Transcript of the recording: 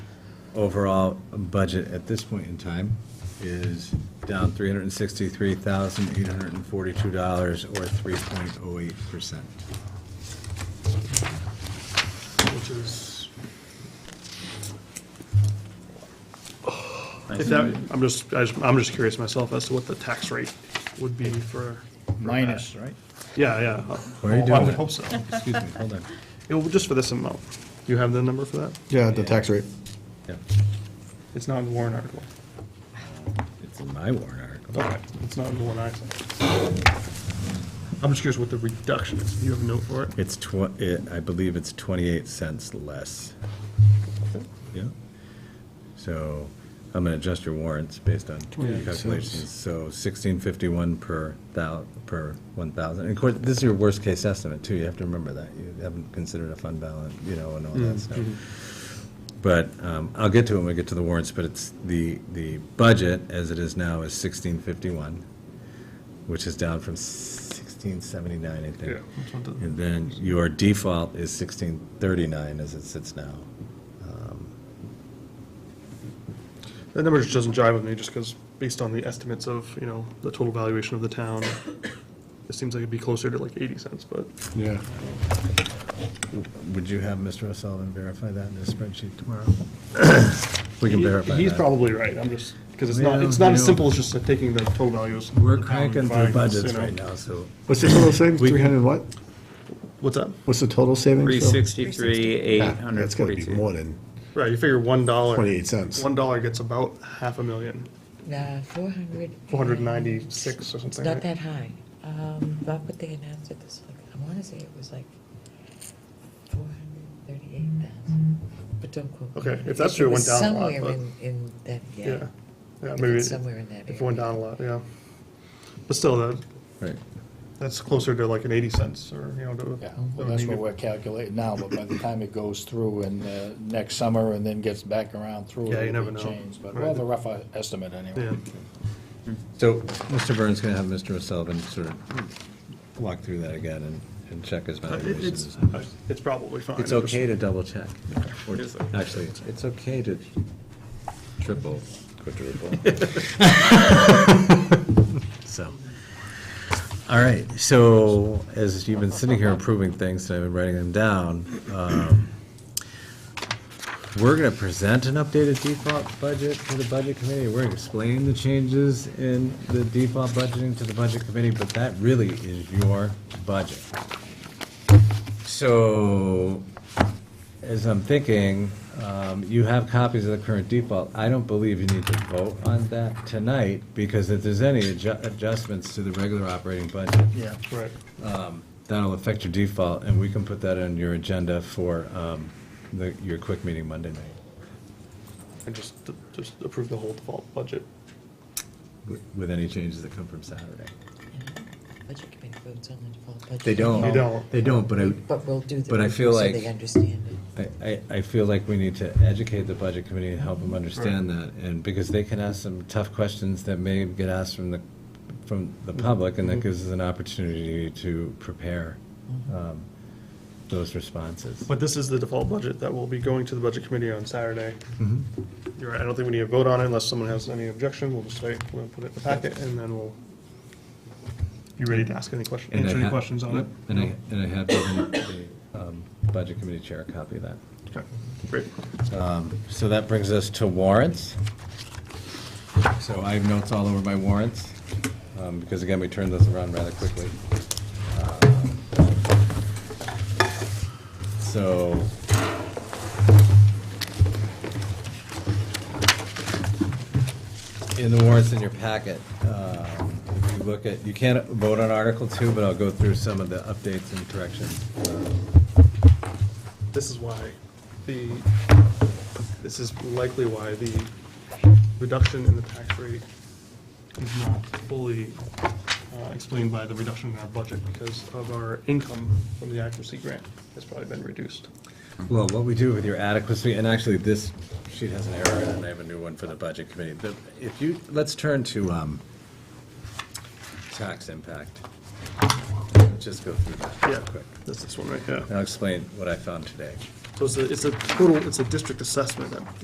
overall budget at this point in time is down three hundred and sixty-three thousand, eight hundred and forty-two dollars, or three point oh eight percent. which is, Thanks. if that, I'm just, I just- I'm just curious myself as to what the tax rate would be for, minus, right? yeah, yeah. Where are you I doing would that? hope so. Excuse me, hold on. It will, just for this amount. Do you have the number for that? Yeah, the tax rate. Yeah, It's not in the warrant article. It's in my warrant article. Okay, it's not in the one I saw. I'm just curious what the reduction is. Do you have a note for it? It's tw, it, I believe it's twenty-eight cents less. Yeah. So I'm gonna adjust your warrants based on your 28 calculations. So sixteen fifty-one per thou, per one thousand. And of course, this is your worst-case estimate too. You have to remember that. You haven't considered a fund balance, you know, and all that stuff. But um, I'll get to it when we get to the warrants, but it's, the, the budget as it is now is sixteen fifty-one, which is down from sixteen seventy-nine, I think. That's what the- And then your default is sixteen thirty-nine as it sits now. That number just doesn't jive with me, just because, based on the estimates of, you know, the total valuation of the town, it seems like it'd be closer to like 80 cents, but Yeah. Would you have Mr. O'Sullivan verify that in his spreadsheet tomorrow? We can he- verify he's that. probably right, I'm just, because it's not, Well, it's not you as know- simple as just uh, taking the total values. of We're the town and cranking through dividing this, budgets you know. right now, so What's the total savings? We- 300 what? What's that? What's the total savings? Phil? 363, Ah, That's gotta be 842. more than Right, you figure one dollar. 28 cents. One dollar gets about half a million, Nah, four hundred. 496 or something. Not right? that high. Um, but what they announced it this, like, I wanna say it was like four hundred thirty-eight thousand, but don't quote. me. Okay, if that's true, it went was down a lot, Somewhere but- in, in that, Yeah, yeah. yeah, If maybe it's it- Somewhere in that area. if it went down a lot, yeah. But still, that, Right. that's closer to like an 80 cents or, you know. to- Yeah, to well, that's what maybe- we're calculating now, but by the time it goes through and uh, next summer and then gets back around through. Yeah, you it'll never be know. changed, But Right. we'll have a rough uh, estimate Yeah. anyway. So Mr. Burns going to have Mr. O'Sullivan sort of walk through that again and, and check his But Uh, it- valuations. It's, it's probably fine. It's okay to double check. Or Actually, it's okay to triple, quadruple. So, all right, so as you've been sitting here approving things, and I've been writing them down, um, we're gonna present an updated default budget to the budget committee. We're gonna explain the changes in the default budgeting to the budget committee, but that really is your budget. So, as I'm thinking, um, you have copies of the current default. I don't believe you need to vote on that tonight, because if there's any adju- adjustments to the regular operating budget, Yeah. Right. that'll affect your default, and we can put that on your agenda for um, the- your quick meeting Monday night, And just, just approve the whole default budget. with- with any changes that come from Saturday. Budget committee votes on the default budget. They don't. They don't. They don't, but I, But we'll do the. But I review feel like- So they understand it. I- I, I feel like we need to educate the budget committee and help them understand that, and because they can ask some tough questions that may get asked from the, from the Mm-hmm. public, and that gives us an opportunity to prepare Mm-hmm. um, those responses. But this is the default budget that will be going to the budget committee on Saturday. Mm-hmm. You're right, I don't think we need to vote on it unless someone has any objection, we'll just wait, we'll put it in the packet, and then we'll be ready to ask any question, And I answer any ha- questions on it. And I, and I have given the um, budget committee chair a copy of that. Okay, Great. Um, So that brings us to warrants. So I have notes all over my warrants, um, because again, we turned this around rather quickly. Uh, So. In the warrants in your packet, um, if you look at, you can't vote on Article Two, but I'll go through some of the updates and corrections. This is why the, this is likely why the reduction in the tax rate is not fully uh, explained by the reduction in our budget, because of our income from the accuracy grant has probably been reduced. Well, what we do with your adequacy, and actually, this sheet has an error, in it, and I have a new one for the budget committee. The- If you, let's turn to um, tax impact. Just go through that real Yeah, quick. that's this one right here. And I'll explain what I found today. So it's a, it's a total, it's a district assessment that